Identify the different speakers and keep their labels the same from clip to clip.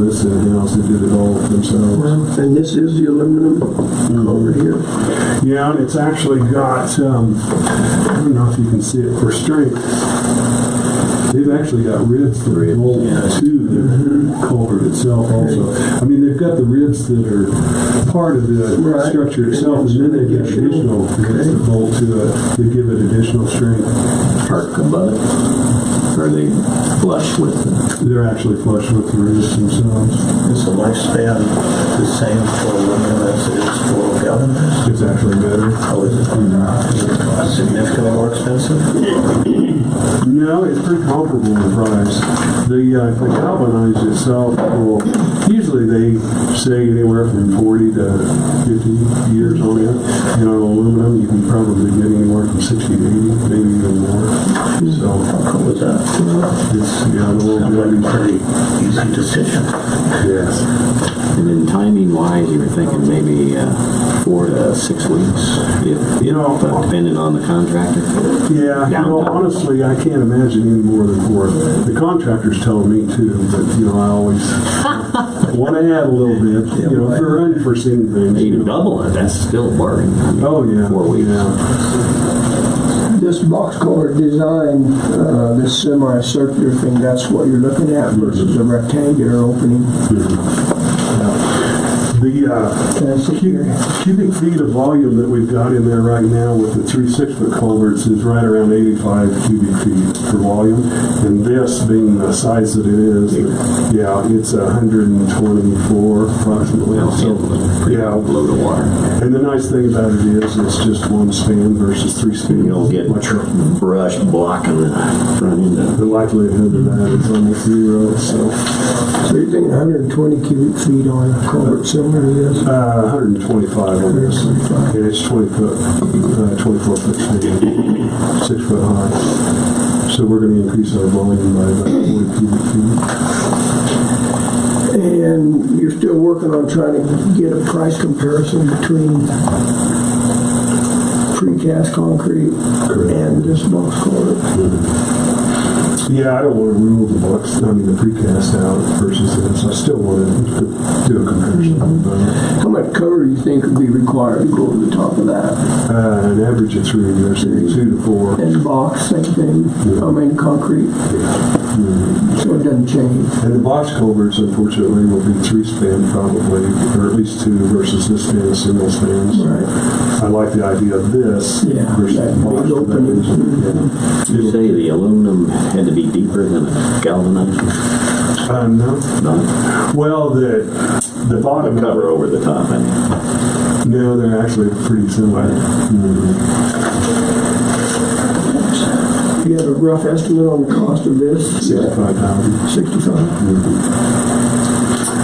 Speaker 1: This in-house, they did it all themselves.
Speaker 2: And this is the aluminum over here.
Speaker 1: Yeah, and it's actually got, um, I don't know if you can see it for strength. They've actually got ribs Mm-hmm. that are rolled to the culvert itself also. I mean, they've got the ribs that are part of the
Speaker 2: Right.
Speaker 1: structure itself, and then they've got additional ribs that bolt to it, to give it additional strength.
Speaker 3: park above it? Are they flush with the
Speaker 1: They're actually flush with the ribs themselves.
Speaker 4: Is the lifespan the same for aluminum as it is for galvanized?
Speaker 1: It's actually better.
Speaker 4: How is it significantly more expensive?
Speaker 1: No, it's pretty comparable in price. The, uh, the galvanized itself will, usually they say anywhere from forty to fifty years on it. And on aluminum, you can probably get anywhere from sixty to eighty, maybe even more. So
Speaker 4: How was that?
Speaker 1: it's, yeah, a
Speaker 4: Sounds
Speaker 1: little
Speaker 4: like
Speaker 1: bit,
Speaker 4: a pretty easy decision.
Speaker 1: yes.
Speaker 3: And then timing wise, you were thinking maybe uh, four to six weeks, if,
Speaker 1: You
Speaker 3: if,
Speaker 1: know-
Speaker 3: uh, depending on the contractor.
Speaker 1: Yeah, you know, honestly, I can't imagine any more than four. The contractor's telling me too, but, you know, I always want to add a little bit, you know, for unforeseen things. you
Speaker 3: Even
Speaker 1: know.
Speaker 3: double it, that's still work. I mean,
Speaker 1: Oh, yeah.
Speaker 3: Four weeks.
Speaker 1: yeah.
Speaker 2: This box culvert design, uh, this semicircular thing, that's what you're looking at versus a rectangular opening.
Speaker 1: The uh,
Speaker 2: Can I sit
Speaker 1: cu-
Speaker 2: here?
Speaker 1: cubic feet of volume that we've got in there right now with the three six-foot culverts is right around 85 cubic feet per volume. And this being the size that it is, yeah, it's 124 approximately.
Speaker 3: Well,
Speaker 1: So,
Speaker 3: it's pretty
Speaker 1: Yeah.
Speaker 3: Low to water.
Speaker 1: And the nice thing about it is, it's just one span versus three spans.
Speaker 3: You'll get
Speaker 1: Much-
Speaker 3: brush blocking the front end of
Speaker 1: The likelihood of that is almost zero, so
Speaker 2: So you're thinking 120 cubic feet on a culvert similar to this?
Speaker 1: uh, 125 on this. And it's 20 foot, uh, 24 foot span, six foot high. So we're going to increase our volume by about 40 cubic feet.
Speaker 2: And you're still working on trying to get a price comparison between precast concrete and this box culvert?
Speaker 1: Yeah, I don't want to rule the box, I mean, the precast out versus this. I still want to do a comparison. but,
Speaker 2: How much cover do you think would be required to go over the top of that?
Speaker 1: Uh, an average of three years, two to four.
Speaker 2: And box, same thing, I mean, concrete, so it doesn't change.
Speaker 1: And the box culverts, unfortunately, will be three span probably, or at least two versus this span, single spans.
Speaker 2: Right.
Speaker 1: I like the idea of this
Speaker 2: Yeah,
Speaker 1: versus
Speaker 2: that
Speaker 1: the box.
Speaker 2: big
Speaker 1: for that
Speaker 2: open.
Speaker 1: reason, yeah.
Speaker 3: You say the aluminum had to be deeper than a galvanized?
Speaker 1: Uh, no.
Speaker 3: No,
Speaker 1: Well, the, the bottom
Speaker 3: the cover over the top, I mean.
Speaker 1: No, they're actually pretty similar. Mhm.
Speaker 2: You have a rough estimate on the cost of this?
Speaker 1: Sixty-five thousand.
Speaker 2: Sixty-five?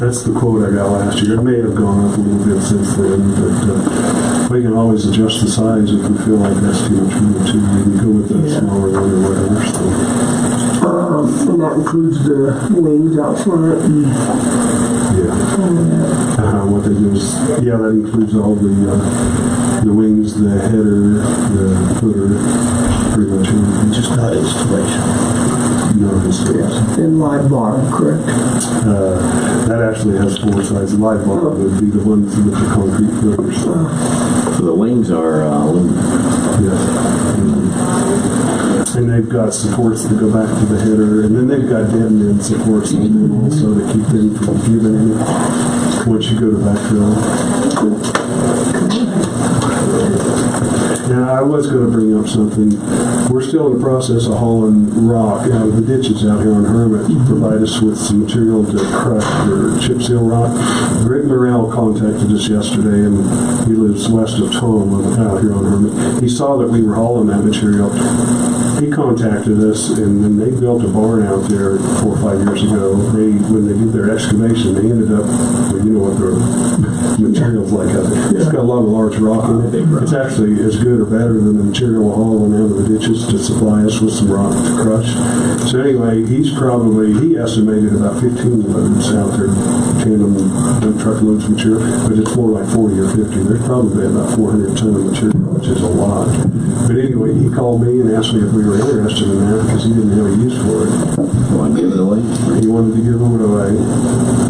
Speaker 1: That's the quote I got last year. It may have gone up a little bit since then, but uh, we can always adjust the size if we feel like that's too much room too. We can go with the
Speaker 2: Yeah.
Speaker 1: smaller one or whatever, so,
Speaker 2: Um, and that includes the wings out front and
Speaker 1: yeah.
Speaker 2: all of that.
Speaker 1: Uh, what they do is, yeah, that includes all the, uh, the wings, the header, the footer, pretty much everything.
Speaker 4: Just not installation.
Speaker 1: You know, it's-
Speaker 2: And live bottom, correct?
Speaker 1: Uh, that actually has four sides. Live bar would be the ones with the concrete footers.
Speaker 3: So the wings are uh, aluminum.
Speaker 1: Yes. Mm-hmm. And they've got supports that go back to the header, and then they've got dead end supports on them also to keep them from giving in once you go to backfill. Now, I was going to bring up something. We're still in the process of hauling rock out of the ditches out here on Hermit to provide us with some material to crush or chip seal rock. Greg Morrell contacted us yesterday, and he lives west of Tom out here on Hermit. He saw that we were hauling that material. He contacted us, and then they built a barn out there four or five years ago. They, when they did their excavation, they ended up, well, you know what their material's like out there. It's got a lot of large rock in
Speaker 3: Big
Speaker 1: it.
Speaker 3: rock.
Speaker 1: It's actually as good or better than the material hauling out of the ditches to supply us with some rock to crush. So anyway, he's probably, he estimated about 15 loads out there, tandem dump truck loads of material, but it's more like 40 or 50. There's probably about 400 ton of material, which is a lot. But anyway, he called me and asked me if we were interested in that because he didn't have a use for it.
Speaker 3: Want to give it away?
Speaker 1: He wanted to give it away.